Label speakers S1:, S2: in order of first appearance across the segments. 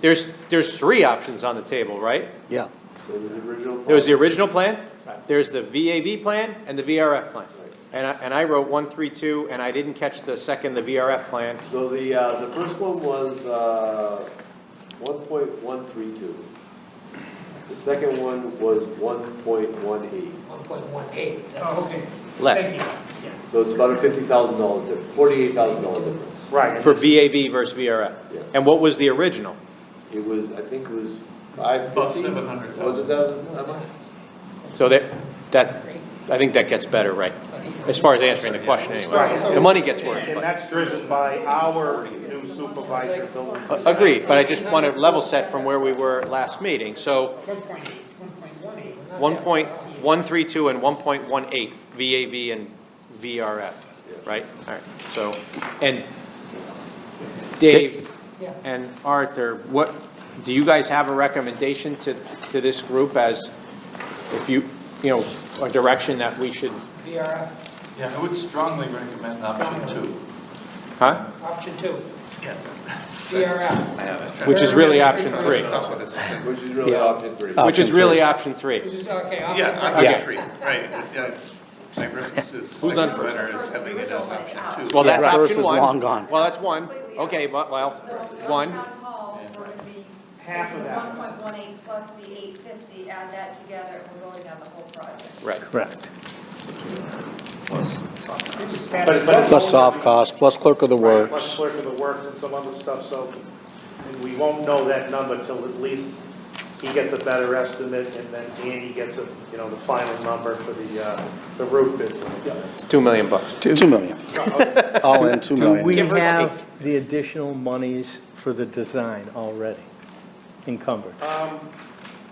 S1: There's, there's three options on the table, right?
S2: Yeah,
S3: There was the original.
S1: There was the original plan, there's the VAV plan, and the VRF plan. And I, and I wrote one, three, two, and I didn't catch the second, the VRF plan.
S3: So the, uh, the first one was, uh, one point one three two. The second one was one point one eight,
S4: One point one eight.
S5: Oh, okay.
S1: Less.
S5: Thank you. Yeah.
S3: so it's about a fifty thousand dollar difference, forty-eight thousand dollar difference.
S5: Right.
S1: For VAV versus VRF.
S3: Yes.
S1: And what was the original?
S3: It was, I think it was five fifty.
S6: About 700,000.
S3: Was it that, that much?
S1: So that, that, I think that gets better, right? As far as answering the question anyway.
S5: Right, so-
S1: The money gets worse,
S5: And
S1: but-
S5: that's driven by our new supervisor, building.
S1: A- agreed, but I just want to level set from where we were last meeting. So
S5: One point eight, one point
S1: one
S5: one eight.
S1: point one three two and one point one eight, VAV and VRF, right? All right, so, and Dave
S4: Yeah.
S1: and Arthur, what, do you guys have a recommendation to, to this group as, if you, you know, a direction that we should,
S4: VRF,
S6: Yeah, I would strongly recommend option two.
S1: huh?
S4: option two. VRF,
S1: Which is really option three,
S3: Which is really option three.
S1: which is really option three.
S4: which is, okay,
S6: Yeah,
S4: option
S1: Okay.
S6: option three, right, yeah. My reference is,
S1: Who's on
S6: second
S1: first?
S6: letter is having it as option two.
S1: Well, that's
S2: Yeah, first
S1: option
S2: is
S1: one.
S2: long gone.
S1: Well, that's one, okay, but, well, one,
S7: Town hall, we're gonna be.
S5: Half of that.
S7: One point one eight plus the eight fifty, add that together, and we're voting on the whole project.
S1: right.
S2: correct.
S5: But- but-
S2: Plus soft cost, plus clerk of the
S5: Right, Much
S2: works.
S5: closer to the works and some other stuff, so and we won't know that number till at least he gets a better estimate and then Andy gets a, you know, the final number for the, uh, the roof business.
S1: It's two million bucks.
S2: Two million. All in, two
S8: Do we
S2: million.
S1: Give or
S8: have the additional monies for the design already encumbered?
S5: Um,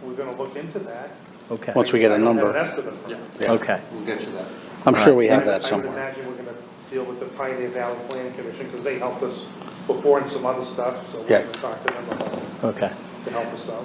S5: we're gonna look into that.
S8: Okay,
S2: Once we get a
S5: I don't
S2: number,
S5: have an estimate for it.
S8: okay.
S6: We'll get you that.
S2: I'm sure we have
S5: I-
S2: that
S5: I would
S2: somewhere.
S5: imagine we're gonna deal with the Pioneer Valley Planning Commission, because they helped us before in some other stuff, so we're
S2: Yeah.
S5: gonna talk to them about,
S8: Okay.
S5: to help us out.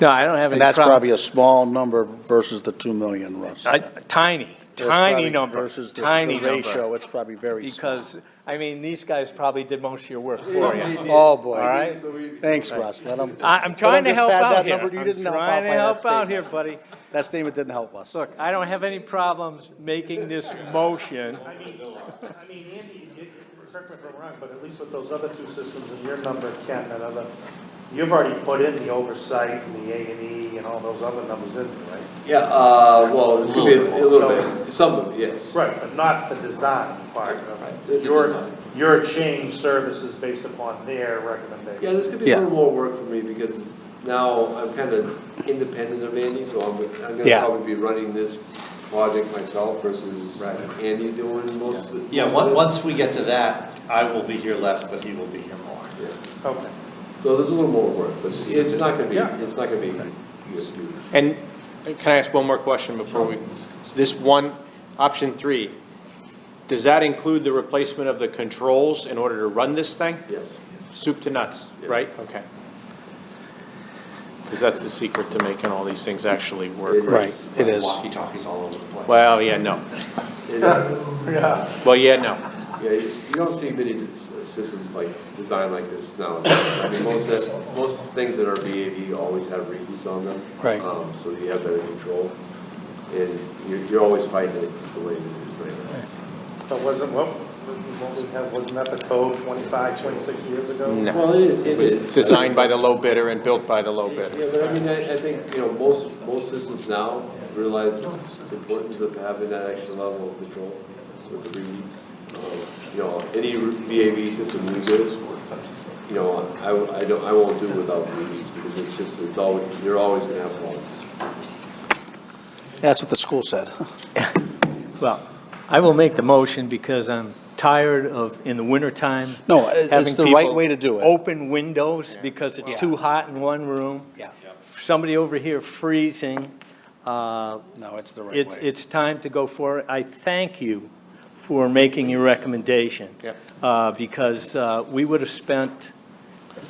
S8: No, I don't have any
S2: And that's
S8: problem.
S2: probably a small number versus the two million, Russ.
S8: a Tiny,
S2: That's
S8: tiny
S2: probably
S8: number,
S2: versus the-
S8: tiny
S2: the
S8: number.
S2: Ratio, it's probably very small.
S8: Because, I mean, these guys probably did most of your work for you.
S2: Oh,
S8: All
S2: boy.
S8: right?
S2: Thanks, Russ. Let 'em-
S8: I, I'm trying to
S2: just
S8: help
S2: add that
S8: out here.
S2: number. You
S8: I'm
S2: didn't help out
S8: trying to
S2: by that
S8: help out
S2: statement.
S8: here, buddy.
S2: That statement didn't help us.
S8: Look, I don't have any problems making this motion.
S5: I mean, I mean, Andy, it- correct me if I'm wrong, but at least with those other two systems and your number, Ken, that other, you've already put in the oversight and the A and E and all those other numbers in there, right?
S3: Yeah, uh, well, it's gonna be a a little
S5: So-
S3: bit, some of it, yes.
S5: Right, but not the design part of it.
S3: Your,
S5: Your change services based upon their
S3: Yeah,
S5: recommendation.
S3: this could be
S2: Yeah.
S3: a little more work for me because now I'm kind of independent of Andy, so I'm, I'm gonna
S2: Yeah.
S3: probably be running this project myself versus Andy doing most of.
S9: Yeah,
S3: most
S9: on-
S3: of it.
S9: once we get to that, I will be here less, but he will be here more.
S3: Yeah.
S5: Okay.
S3: So there's a little more work, but it's not gonna be,
S5: Yeah.
S3: it's not gonna be huge.
S1: And can I ask one more question before we, this one, option three, does that include the replacement of the controls in order to run this thing?
S3: Yes.
S1: Soup to nuts, right? Okay. Because that's the secret to making all these things actually work, right?
S2: Right, it is.
S9: Walkie-talkies all over the place.
S1: Well, yeah, no.
S3: It, uh,
S1: Well, yeah, no.
S3: Yeah, you you don't see many s- systems like, designed like this now. I mean, most, of- most things that are VAV always have reheats on them.
S2: Right.
S3: Um, So you have better control, and you're, you're always fighting it the way it is right now.
S5: So wasn't, what, what we have, wasn't that the code 25, 26 years ago?
S2: Mm-hmm.
S1: No.
S3: Well, it is,
S1: It
S3: it
S1: was
S3: is.
S1: designed by the low bidder and built by the low
S3: Yeah,
S1: bidder.
S3: but I mean, I, I think, you know, most, most systems now realize the importance of having that extra level of control with the reads. Um, You know, any VAV system we do, you know, I, I don't, I won't do without reads because it's just, it's always, you're always gonna have problems.
S2: That's what the school said.
S8: Well, I will make the motion because I'm tired of, in the wintertime.
S2: No, it- it's
S8: having
S2: the right
S8: people
S2: way to do it.
S8: Open windows because it's too hot in one room.
S2: Yeah.
S8: Somebody over here freezing. Uh,
S2: No, it's the right
S8: It's,
S2: way.
S8: it's time to go forward. I thank you for making your recommendation.
S1: Yep.
S8: Uh, Because uh, we would have spent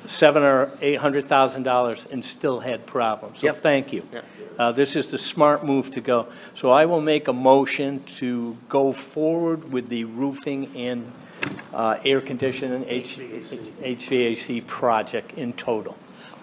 S8: seven or eight hundred thousand dollars and still had problems. So
S2: Yep.
S8: thank you.
S1: Yep.
S8: Uh, This is the smart move to go. So I will make a motion to go forward with the roofing and uh, air conditioning, H- HVAC project in total.